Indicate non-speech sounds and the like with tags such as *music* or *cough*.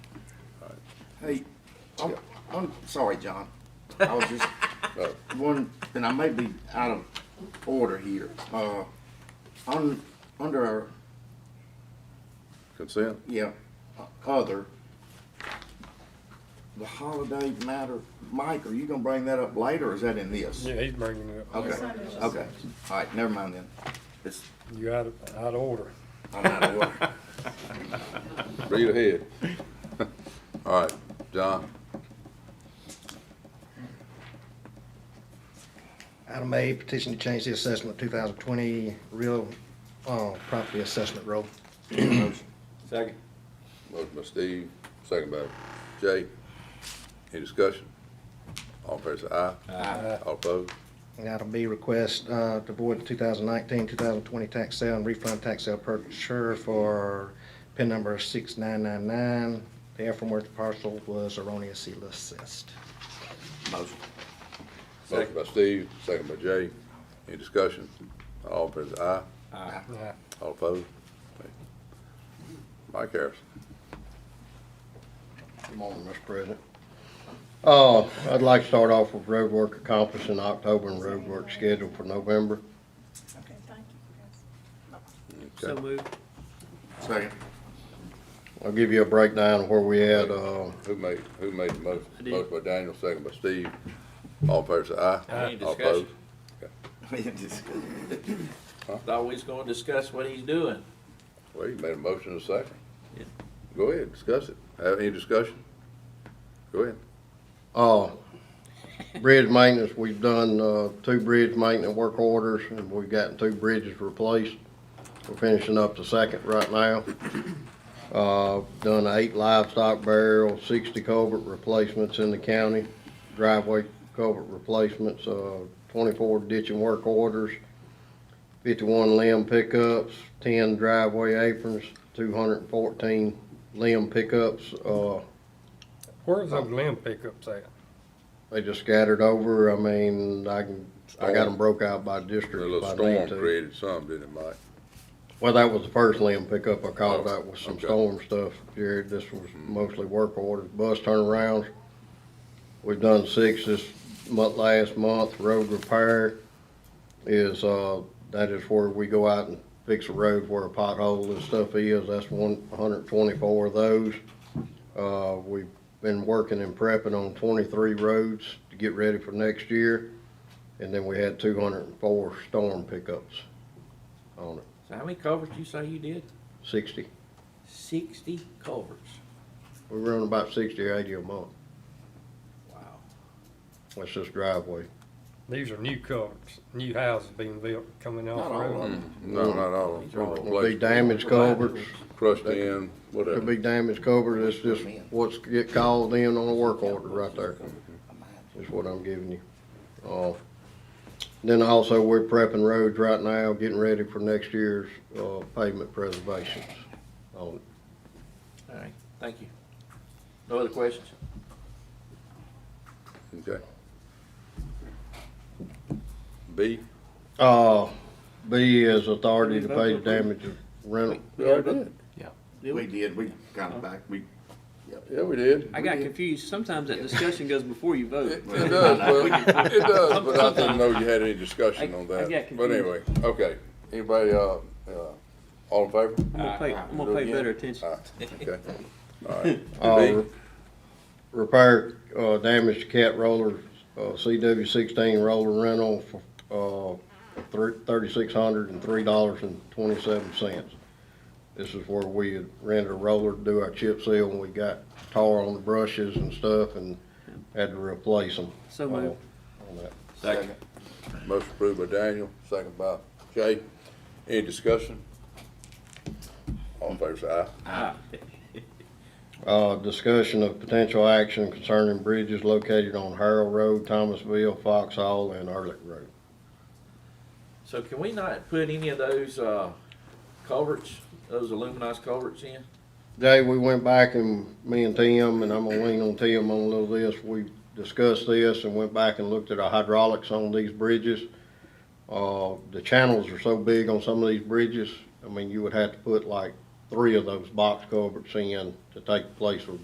Hey, I'm, I'm sorry, John. I was just Oh, one, and I may be out of order here. Uh, on, under our, Consent? yeah, uh, other, the holiday matter, Mike, are you gonna bring that up later, or is that in this? Yeah, he's bringing it up. Okay, okay, all right, never mind then. It's, You out of, out of order. I'm out of order. Read ahead. *laughs* All right, John, Item A, petition to change the assessment 2020 real uh, property assessment roll. Second. motion by Steve, second by Jay. Any discussion? All in favor say aye. Aye. All opposed? And item B, request uh, to void the 2019, 2020 tax sale and refund tax sale purchaser for pin number 6999. The aforementioned parcel was erroneously assessed. Motion. Motion by Steve, second by Jay. Any discussion? All in favor say aye. Yeah. All opposed? Okay. Mike Harrison. Good morning, Mr. President. Uh, I'd like to start off with road work accomplished in October and road work scheduled for November. Okay, thank you. Okay. Second. *laughs* I'll give you a breakdown of where we at, uh, Who made, who made the motion? Motion by Daniel, second by Steve. All in favor say aye. Any All opposed? discussion? Just- Thought we was gonna discuss what he's doing. Well, you made a motion in a second. Yeah. Go ahead, discuss it. Have any discussion? Go ahead. Uh, bridge maintenance, we've done, uh, two bridge maintenance work orders, and we've gotten two bridges replaced. We're finishing up the second right now. Uh, done eight livestock burial, sixty culvert replacements in the county, driveway culvert replacements, uh, twenty-four ditching work orders, fifty-one limb pickups, ten driveway aprons, two hundred and fourteen limb pickups, uh, Where's those limb pickups at? they just scattered over, I mean, I can, I got them broke out by A district little if I need storm to. created some, didn't it, Mike? Well, that was the first limb pickup I called out with some Okay. storm stuff, Jared, this was mostly work orders, bus turnarounds. We've done six this month, last month, road repair is, uh, that is where we go out and fix a road where a pothole and stuff is, that's one hundred and twenty-four of those. Uh, we've been working and prepping on twenty-three roads to get ready for next year. And then we had two hundred and four storm pickups on it, So how many culverts you say you did? sixty. Sixty culverts. We run about sixty or eighty a month. Wow. That's just driveway. These are new culverts, new houses being built, coming off Not the all of road. them. Mm-hmm. No, not all. of These are all- them. Could be damaged culverts, Crushed in, could whatever. be damaged culverts, it's just what's get called in on a work order right there, is what I'm giving you. Uh, Then also, we're prepping roads right now, getting ready for next year's, uh, pavement preservations on it. All right, thank you. No other questions? Okay. B? Uh, B is authority to Did we pay vote the damage of rental. We already did. Did We we? did, we kind of back, we. Yeah, we did. I got confused. Sometimes that discussion goes before you vote. *laughs* It it does, *laughs* but, it does, but I didn't know you had any discussion on I- I that. got But anyway, okay. Anybody, uh, uh, all in favor? I'm gonna pay, I'm gonna pay better attention. *laughs* All right, okay. All right. B? Uh, repair, uh, damage to cat roller, uh, CW sixteen roller rental for, uh, thirty-six hundred and three dollars and twenty-seven cents. This is where we had rented a roller to do our chip seal, and we got tar on the brushes and stuff, and had to replace them. So moved. Second. Motion approved by Daniel, second by Jay. Any discussion? All in favor, say aye. Uh, discussion of potential action concerning bridges located on Harold Road, Thomasville, Fox Hall, and Ehrlich Road. So can we not put any of those, uh, culverts, those aluminized culverts in? Jay, we went back and me and Tim, and I'm gonna lean on Tim on a little this, we discussed this and went back and looked at our hydraulics on these bridges. Uh, the channels are so big on some of these bridges, I mean, you would have to put like three of those box culverts in to take the place of